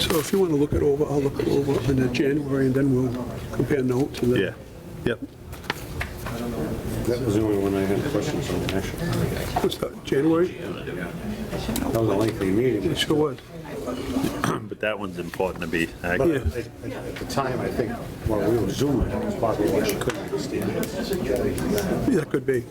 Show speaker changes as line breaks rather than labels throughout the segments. So if you want to look it over, I'll look it over in the January, and then we'll compare notes and then...
Yeah, yep.
That was the only one I had questions on, actually.
What's that, January?
That was a lengthy meeting.
It sure was.
But that one's important to be uh,
But
accurate.
at at the time, I think, while we were zooming, it was probably what she couldn't understand.
Yeah, that could be.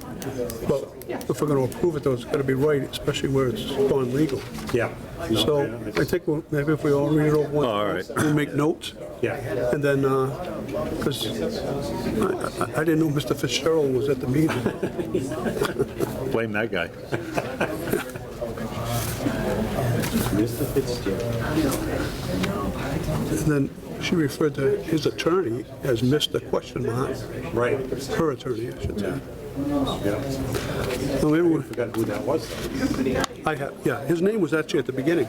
But if we're going to approve it, though, it's got to be right, especially where it's gone legal.
Yeah. No,
So
yeah,
I think we'll- maybe if we all read it over once.
All right.
We'll make notes,
Yeah,
and then, because I I- I didn't know Mr. Fitzgerald was at the meeting.
Blame that guy.
Mr. Fitzgerald.
And then she referred to his attorney as Mr. Question Mark,
Right.
her attorney, I should say.
Yeah.
So maybe we-
Forgot who that was. though.
I have, yeah, his name was actually at the beginning,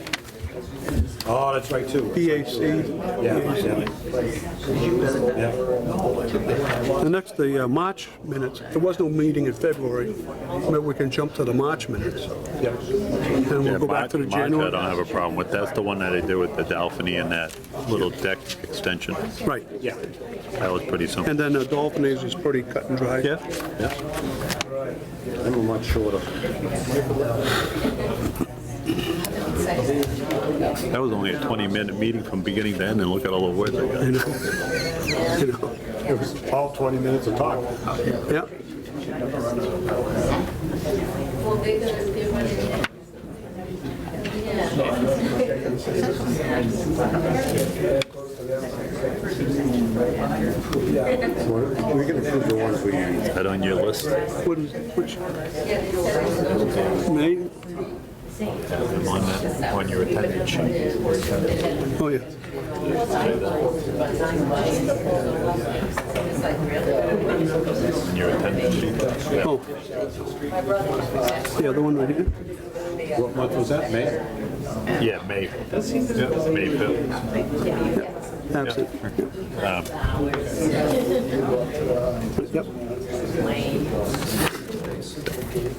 Oh, that's right, too.
BAC.
Yeah, yeah.
The next, the uh, March minutes, there was no meeting in February, maybe we can jump to the March minutes,
Yeah.
and
Yeah,
we'll go back to the
March- March, I
January.
don't have a problem with, that's the one that I did with the Dolphiny and that little deck extension.
Right,
Yeah.
That was pretty simple.
and then the Dolphin is is pretty cut and dry.
Yeah, yeah.
I'm a much shorter.
That was only a 20-minute meeting from beginning to end, and look at all the words I
You
got.
know, you know,
It was all 20 minutes of talk.
yeah,
We can approve the ones we
Is that on your list?
what is, which? May,
Have them on that, on your attendance sheet.
oh, yeah,
On your attendance sheet.
oh. The other one right here,
What month was that, May?
Yeah, May. Yeah, May 5th.
absent,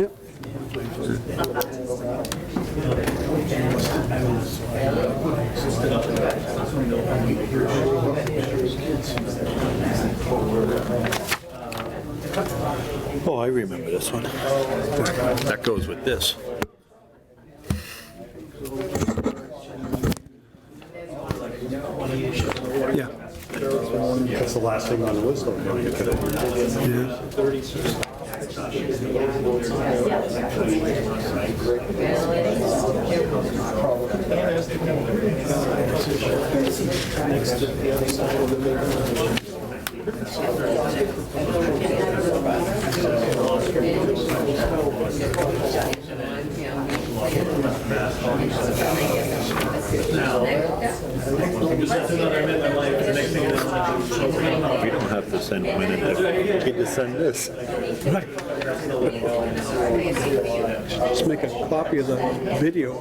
yep. Yep,
Oh, I remember this one. That goes with this.
yeah,
That's the last thing on the list, though. don't you think?
yeah.
We don't have to send one in there. Get to send this.
Just make a copy of the video.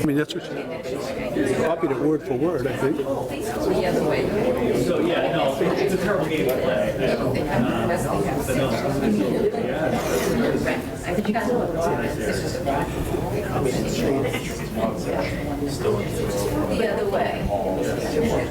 I mean, that's what she copied it word for word, I think.
The other way.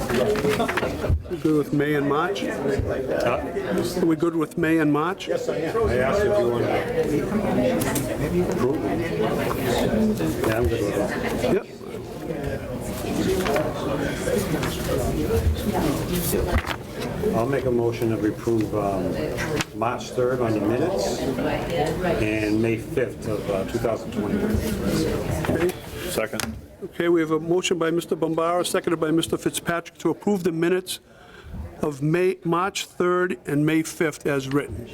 We Good with May and March? Are we good with May and March? Yes.
I asked if you wanted to. approve it. Yeah, I'm good with that.
Yep.
I'll make a motion that we approve um, March 3rd on the minutes and May 5th of uh, 2020.
Okay.
Second.
Okay, we have a motion by Mr. Bombara, seconded by Mr. Fitzpatrick to approve the minutes of May, March 3rd and May 5th as written.